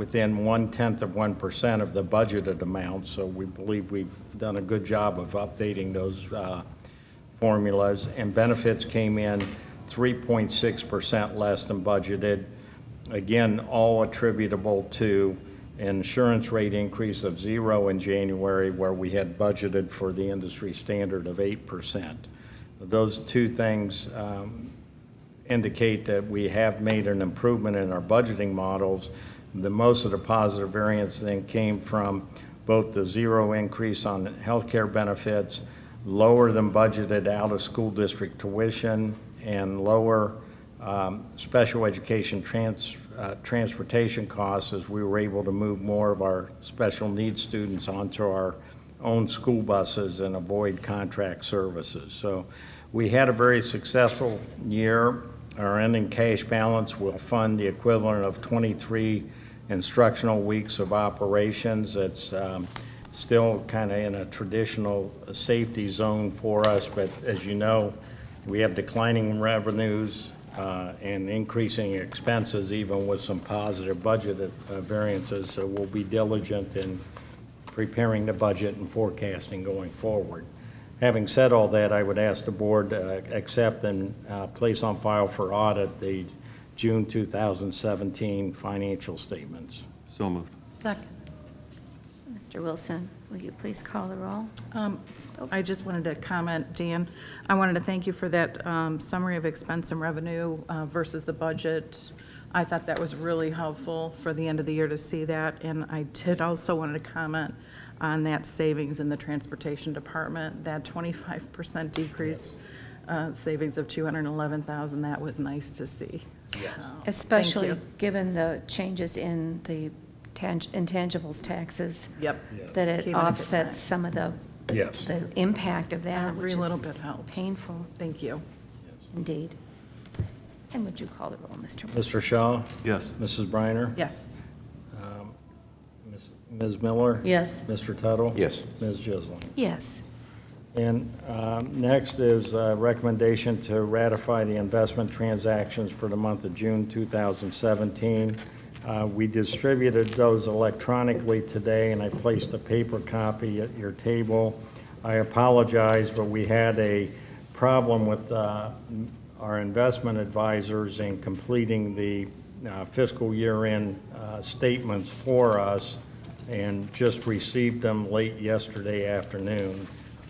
within one-tenth of 1% of the budgeted amount, so we believe we've done a good job of updating those uh, formulas. And benefits came in 3.6% less than budgeted. Again, all attributable to insurance rate increase of zero in January, where we had budgeted for the industry standard of 8%. Those two things um, indicate that we have made an improvement in our budgeting models. The most of the positive variance then came from both the zero increase on healthcare benefits, lower than budgeted out-of-school district tuition, and lower um, special education trans, uh, transportation costs as we were able to move more of our special needs students onto our own school buses and avoid contract services. So we had a very successful year. Our ending cash balance will fund the equivalent of 23 instructional weeks of operations. It's um, still kind of in a traditional safety zone for us, but as you know, we have declining revenues uh, and increasing expenses, even with some positive budget uh, variances. So we'll be diligent in preparing the budget and forecasting going forward. Having said all that, I would ask the board uh, accept and uh, place on file for audit the June 2017 financial statements. So moved. Second. Mr. Wilson, will you please call the roll? Um, I just wanted to comment, Dan, I wanted to thank you for that um, summary of expense and revenue uh, versus the budget. I thought that was really helpful for the end of the year to see that. And I did also wanted to comment on that savings in the transportation department, that 25% decrease, uh, savings of 211,000, that was nice to see. Yes. Especially given the changes in the tang- intangibles taxes. Yep. That Keep it it up. offsets some of the. Yes. The impact of that, which Every is. little bit helps. Painful, Thank you. indeed. And would you call the roll, Mr. Wilson? Mr. Shaw? Yes. Mrs. Briner? Yes. Ms. Ms. Miller? Yes. Mr. Tuttle? Yes. Ms. Jisling? Yes. And um, next is a recommendation to ratify the investment transactions for the month of June 2017. Uh, We distributed those electronically today, and I placed a paper copy at your table. I apologize, but we had a problem with uh, our investment advisors in completing the uh, fiscal year-end uh, statements for us and just received them late yesterday afternoon.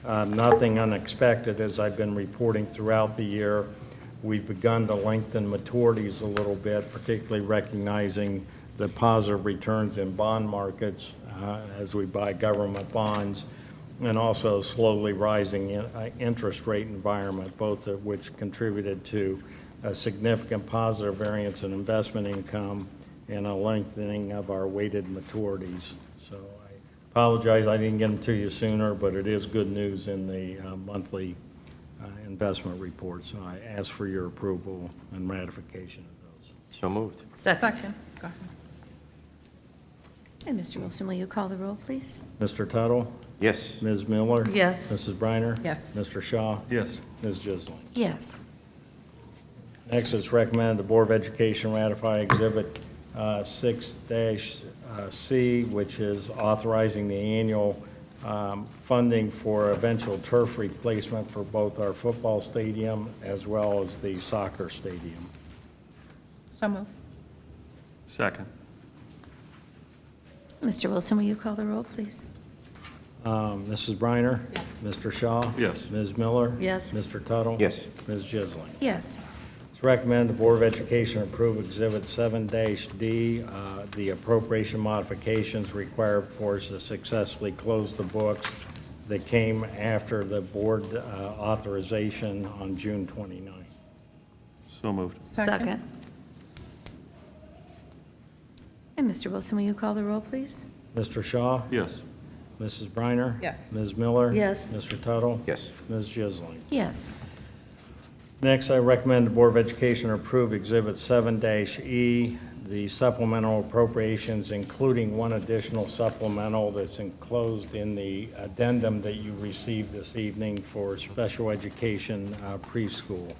Uh, Nothing unexpected, as I've been reporting throughout the year. We've begun to lengthen maturities a little bit, particularly recognizing the positive returns in bond markets uh, as we buy government bonds, and also slowly rising in- uh, interest rate environment, both of which contributed to a significant positive variance in investment income and a lengthening of our weighted maturities. So I apologize, I didn't get them to you sooner, but it is good news in the uh, monthly uh, investment report, so I ask for your approval and ratification of those. So moved. Second. Go ahead. And Mr. Wilson, will you call the roll, please? Mr. Tuttle, Yes. Ms. Miller? Yes. Mrs. Briner? Yes. Mr. Shaw? Yes. Ms. Jisling? Yes. Next, it's recommended the Board of Education ratify Exhibit uh, 6-C, which is authorizing the annual um, funding for eventual turf replacement for both our football stadium as well as the soccer stadium. So moved. Second. Mr. Wilson, will you call the roll, please? Um, Mrs. Briner? Yes. Mr. Shaw? Yes. Ms. Miller? Yes. Mr. Tuttle? Yes. Ms. Jisling? Yes. It's recommended the Board of Education approve Exhibit 7-D, uh, the appropriation modifications required for us to successfully close the books that came after the board uh, authorization on June 29. So moved. Second. And Mr. Wilson, will you call the roll, please? Mr. Shaw? Yes. Mrs. Briner? Yes. Ms. Miller? Yes. Mr. Tuttle? Yes. Ms. Jisling? Yes. Next, I recommend the Board of Education approve Exhibit 7-E, the supplemental appropriations, including one additional supplemental that's enclosed in the addendum that you received this evening for special education uh, preschool.